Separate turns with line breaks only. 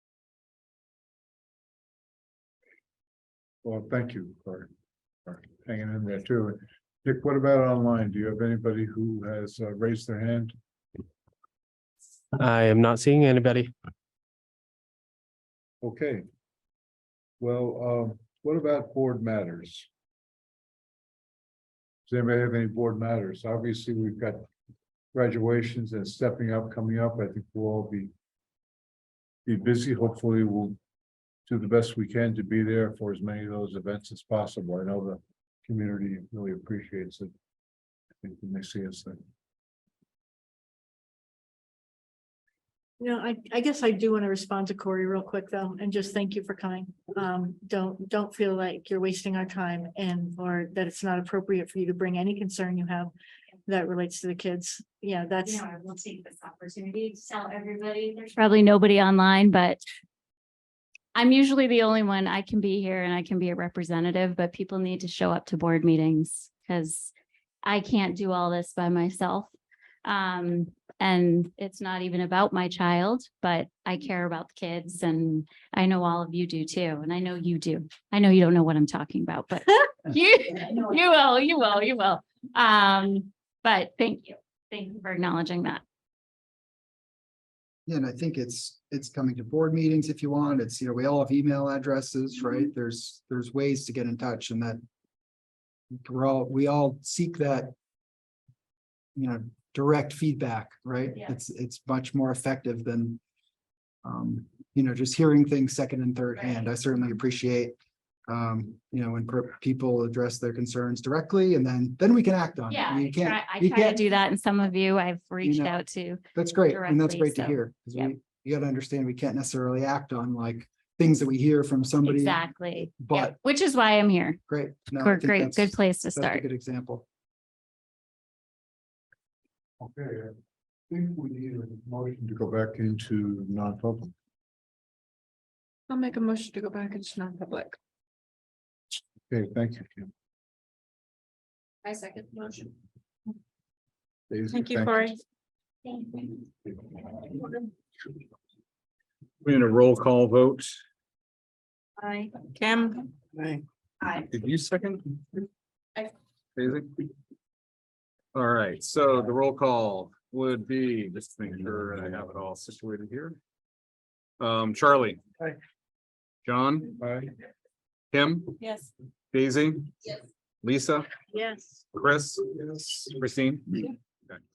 Well, thank you for, for hanging in there too. Dick, what about online? Do you have anybody who has uh, raised their hand?
I am not seeing anybody.
Okay. Well, um, what about board matters? Does anybody have any board matters? Obviously, we've got graduations and stepping up coming up. I think we'll all be be busy. Hopefully, we'll do the best we can to be there for as many of those events as possible. I know the community really appreciates it. I think when they see us there.
No, I, I guess I do want to respond to Corey real quick though, and just thank you for coming. Um, don't, don't feel like you're wasting our time and, or that it's not appropriate for you to bring any concern you have that relates to the kids. Yeah,
You
that's,
know, I will take this opportunity to tell everybody, there's probably nobody online, but I'm usually the only one. I can be here and I can be a representative, but people need to show up to board meetings because I can't do all this by myself. Um, and it's not even about my child, but I care about the kids and I know all of you do too. And I know you do. I know you don't know what I'm talking about, but you, you will, you will, you will. Um, but thank you. Thank you for acknowledging that.
Yeah, and I think it's, it's coming to board meetings if you want. It's, you know, we all have email addresses,
Mm-hmm.
right? There's, there's ways to get in touch and that. We're all, we all seek that. You know, direct feedback, right?
Yeah.
It's, it's much more effective than. Um, you know, just hearing things second and third hand. I certainly appreciate. Um, you know, when per- people address their concerns directly and then, then we can act on it.
Yeah,
Um, You
I
can't-
try, I
you
try to
can't-
do that, and some of you I've reached
know,
out to.
That's great, and that's
directly,
great to
so,
hear, because
yep.
we, you gotta understand, we can't necessarily act on like things that we hear from somebody.
Exactly. Yep,
But,
Which is why I'm here.
great. no, I
Gr-
think
Great,
that's-
good place to
that's a
start.
Good example.
Okay, I think we need a motion to go back into non-public.
I'll make a motion to go back into non-public.
Okay, thank you, Kim.
I second the motion.
Daisy,
thank you, Corey.
We in a roll call vote.
Bye.
Kim?
Did you second?
I-
Daisy? All right, so the roll call would be, just to make sure I have it all situated here. Um, Charlie.
Aye.
John,
Bye.
Kim,
Yes.
Daisy,
Yes.
Lisa,
Yes.
Chris,
Yes.
Christine.